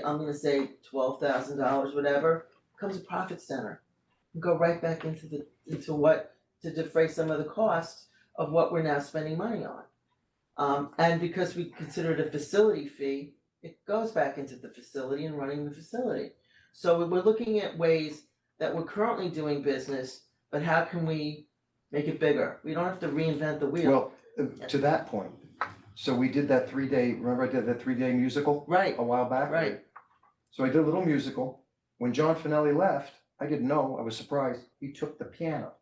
I'm gonna say twelve thousand dollars, whatever, becomes a profit center. Go right back into the, into what, to defray some of the costs of what we're now spending money on. Um, and because we consider it a facility fee, it goes back into the facility and running the facility. So we- we're looking at ways that we're currently doing business, but how can we make it bigger? We don't have to reinvent the wheel, Well, uh, to that point, so we did that three day, remember I did that three day musical right, a while back? Right. So I did a little musical, when John Finelli left, I didn't know, I was surprised, he took the piano.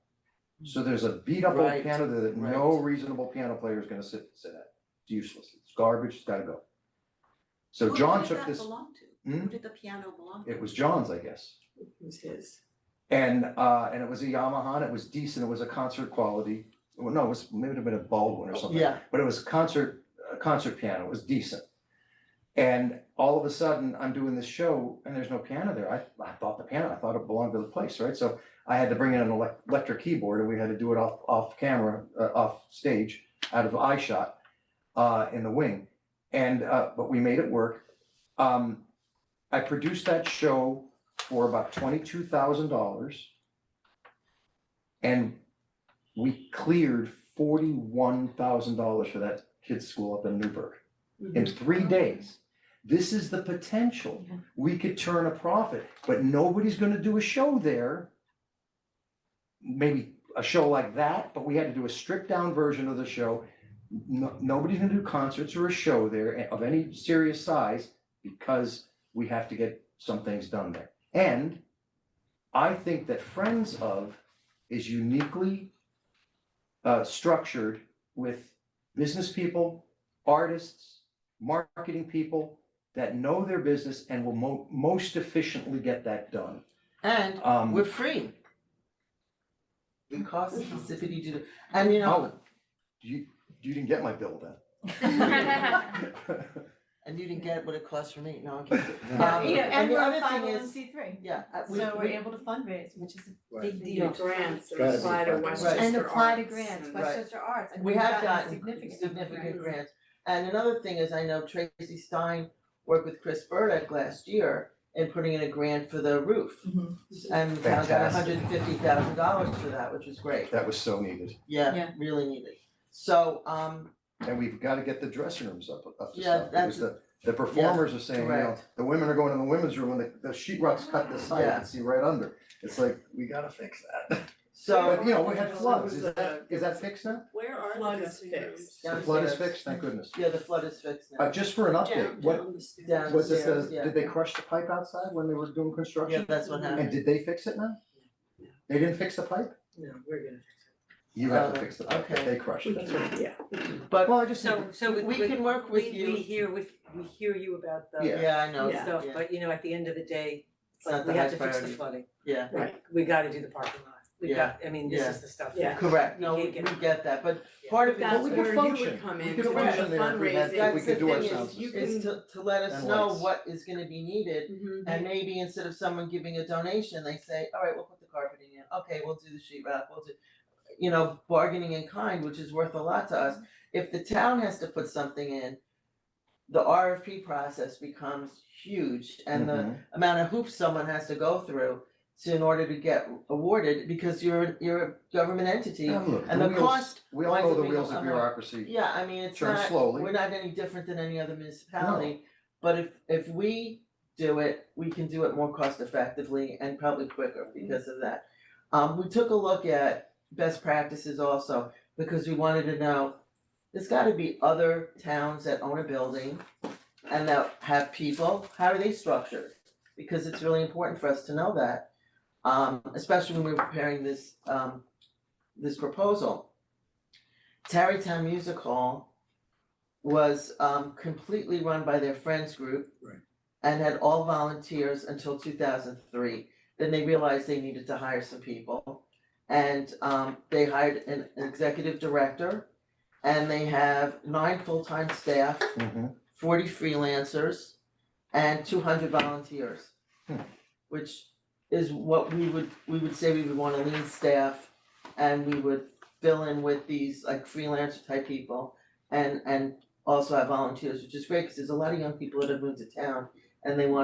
So there's a beat up old Right, piano that no reasonable piano player is gonna sit sit at, it's useless, it's garbage, it's gotta go. So John took this, Who did that belong to? Hmm? Who did the piano belong to? it was John's, I guess. It was his. And uh and it was a Yamaha, and it was decent, it was a concert quality, well, no, it was, maybe it have been a Baldwin or oh, something yeah, but it was concert, a concert piano, it was decent. And all of a sudden, I'm doing this show and there's no piano there, I, I thought the piano, I thought it belonged to the place, right? So I had to bring in an elec- electric keyboard and we had to do it off, off camera, uh, off stage, out of eye shot, uh, in the wing. And, uh, but we made it work. Um, I produced that show for about twenty-two thousand dollars. And we cleared forty-one thousand dollars for that kid's school up in Newburgh Mm-hmm. in three days. This is the potential. Yeah. We could turn a profit, but nobody's gonna do a show there. Maybe a show like that, but we had to do a stripped down version of the show. No, nobody's gonna do concerts or a show there eh, of any serious size because we have to get some things done there. And I think that Friends of is uniquely uh, structured with business people, artists, marketing people that know their business and will mo- most efficiently get that done. and Um, we're free. It costs specificity to, do- and you know, oh, you, you didn't get my bill Oh. then. and you didn't get what it costs for me, no, I'm kidding. Yeah, Um, you know, and and the we're other a thing five oh one is- C three, Yeah, uh, we, so we're we, able to fundraise, which is a Right. big deal. It's gotta be apply to funded. Westchester And apply to Arts grants, and- Westchester Arts, and we we've have gotten gotten significant. significant grants. grants. And another thing is, I know Tracy Stein worked with Chris Burdick last year in putting in a grant for the roof. Mhm. And the town got hundred Fantastic. and fifty thousand dollars for that, which was great, That was so needed. yeah, Yeah. really needed. So, um, And we've gotta get the dressing rooms up, up to Yeah, stuff, because that's- the, the performers are saying, you know, correct. the women are going in the women's room and the, the sheet rock's cut this side, you Yeah. can see right under. It's like, we gotta fix that. so, But, you know, we had So floods, was is the- that, is that fixed now? Where are the Flood is dressing rooms? Yeah. The flood is Downstairs. fixed, thank goodness. yeah, the flood is fixed now. Uh, just for an update, Down, what, down the stairs. down was this, Downstairs, a- yeah. did they crush the pipe outside when they were doing Yeah, construction? that's what happened. And did they fix it now? They didn't fix the pipe? No, we're gonna. You have Uh, to fix the pipe, okay. they crushed it. Yeah. But- Well, I just, So, so we, We we- can work with we- you. We hear, we, we hear you about the Yeah. Yeah, I know, Yeah. stuff, yeah, but you know, at the end of the day, It's not the we have high to fix the priority. flooding. yeah, Right. We gotta do the parking lot. We Yeah. got, I mean, this Yeah. is the stuff. Yeah. correct, no, You we, can't we get- get that, but Yeah. part of it. That's we where could you would function, come we in could to do function the there if we had, fundraising. if we could do our That's the sound thing is, system. is to to let us And know lights. what is gonna be needed Mhm. And maybe instead of someone giving a donation, they say, all right, we'll put the carpeting in, okay, we'll do the sheet rock, we'll do, you know, bargaining in kind, which is worth a lot to Mm-hmm. us. If the town has to put something in, the RFP process becomes huge and the Mhm. amount of hoops someone has to go through to in order to get awarded, because you're, you're a government entity. Yeah, look, And the wheels- cost, We all winds know up the being wheels of on the- bureaucracy, yeah, I mean, it's Turn not, slowly. we're not any different than any other municipality. But if, if we do it, we can do it more cost effectively and probably quicker because of that. Um, we took a look at best practices also, because we wanted to know, there's gotta be other towns that own a building and that have people, how are they structured? Because it's really important for us to know that, um, especially when we we're preparing this, um, this proposal. Tarrytown Music Hall was um completely run by their friends group. Right. And had all volunteers until two thousand three, then they realized they needed to hire some people. And um they hired an executive director and they have nine full-time staff, Mhm. forty freelancers and two hundred volunteers. Hmm. Which is what we would, we would say we would want a lean staff and we would fill in with these like freelancer type people and and also have volunteers, which is great, cause there's a lot of young people that have moved to town and they want